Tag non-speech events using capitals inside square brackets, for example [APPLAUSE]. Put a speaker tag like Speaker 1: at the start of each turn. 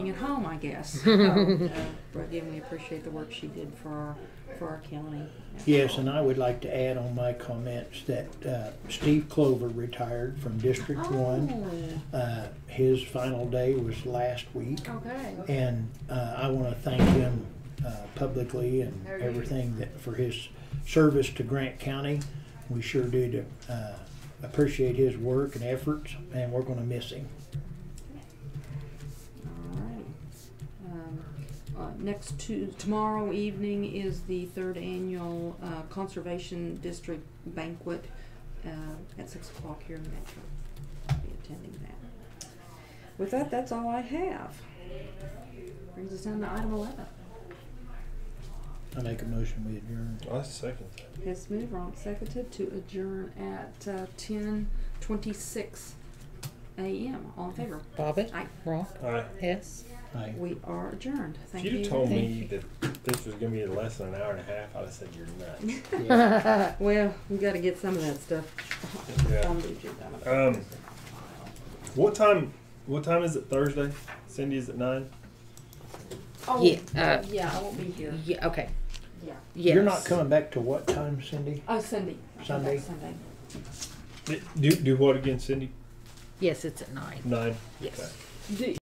Speaker 1: at home, I guess. So, But again, we appreciate the work she did for our, for our county.
Speaker 2: Yes, and I would like to add on my comments that uh, Steve Clover retired from District
Speaker 1: Oh.
Speaker 2: One. Uh, His final day was last week,
Speaker 1: Oh, okay.
Speaker 2: and uh, I want to thank him uh, publicly and everything that, for his service to Grant County. We sure do to, uh, appreciate his work and efforts, and we're going to miss him.
Speaker 1: Alrighty. Um, uh, Next to, tomorrow evening is the third annual uh, Conservation District Banquet uh, at six o'clock here in Metro. I'll Be attending that. With that, that's all I have. Brings us down to item eleven.
Speaker 2: I make a motion we adjourn.
Speaker 3: I Oh, second that.
Speaker 1: Hess moved, Ronk seconded to adjourn at uh, ten twenty-six a.m. All in favor?
Speaker 4: Bobbit,
Speaker 1: Aye.
Speaker 4: Ronk,
Speaker 3: Aye.
Speaker 4: Hess.
Speaker 2: Aye.
Speaker 1: We are adjourned. Thank
Speaker 3: if
Speaker 1: you.
Speaker 3: you'd have told me
Speaker 4: Thank
Speaker 3: that this was gonna be less than an hour and a half, I'd have said you're nuts.
Speaker 2: Yeah.
Speaker 1: Well, we got to get some of that stuff
Speaker 3: yeah.
Speaker 1: on the agenda.
Speaker 3: Um. What time? What time is it Thursday? Cindy is at nine.
Speaker 1: Oh,
Speaker 4: Yeah, uh,
Speaker 1: yeah, I won't be here.
Speaker 4: [LAUGHS] Yeah, okay.
Speaker 1: Yeah.
Speaker 4: Yes.
Speaker 2: You're not coming back to what time, Cindy?
Speaker 1: Oh, Sunday.
Speaker 2: Sunday?
Speaker 1: Sunday.
Speaker 3: Do do what again, Cindy?
Speaker 4: Yes, it's at nine.
Speaker 3: Nine.
Speaker 4: Yes.
Speaker 3: Okay.
Speaker 1: Do,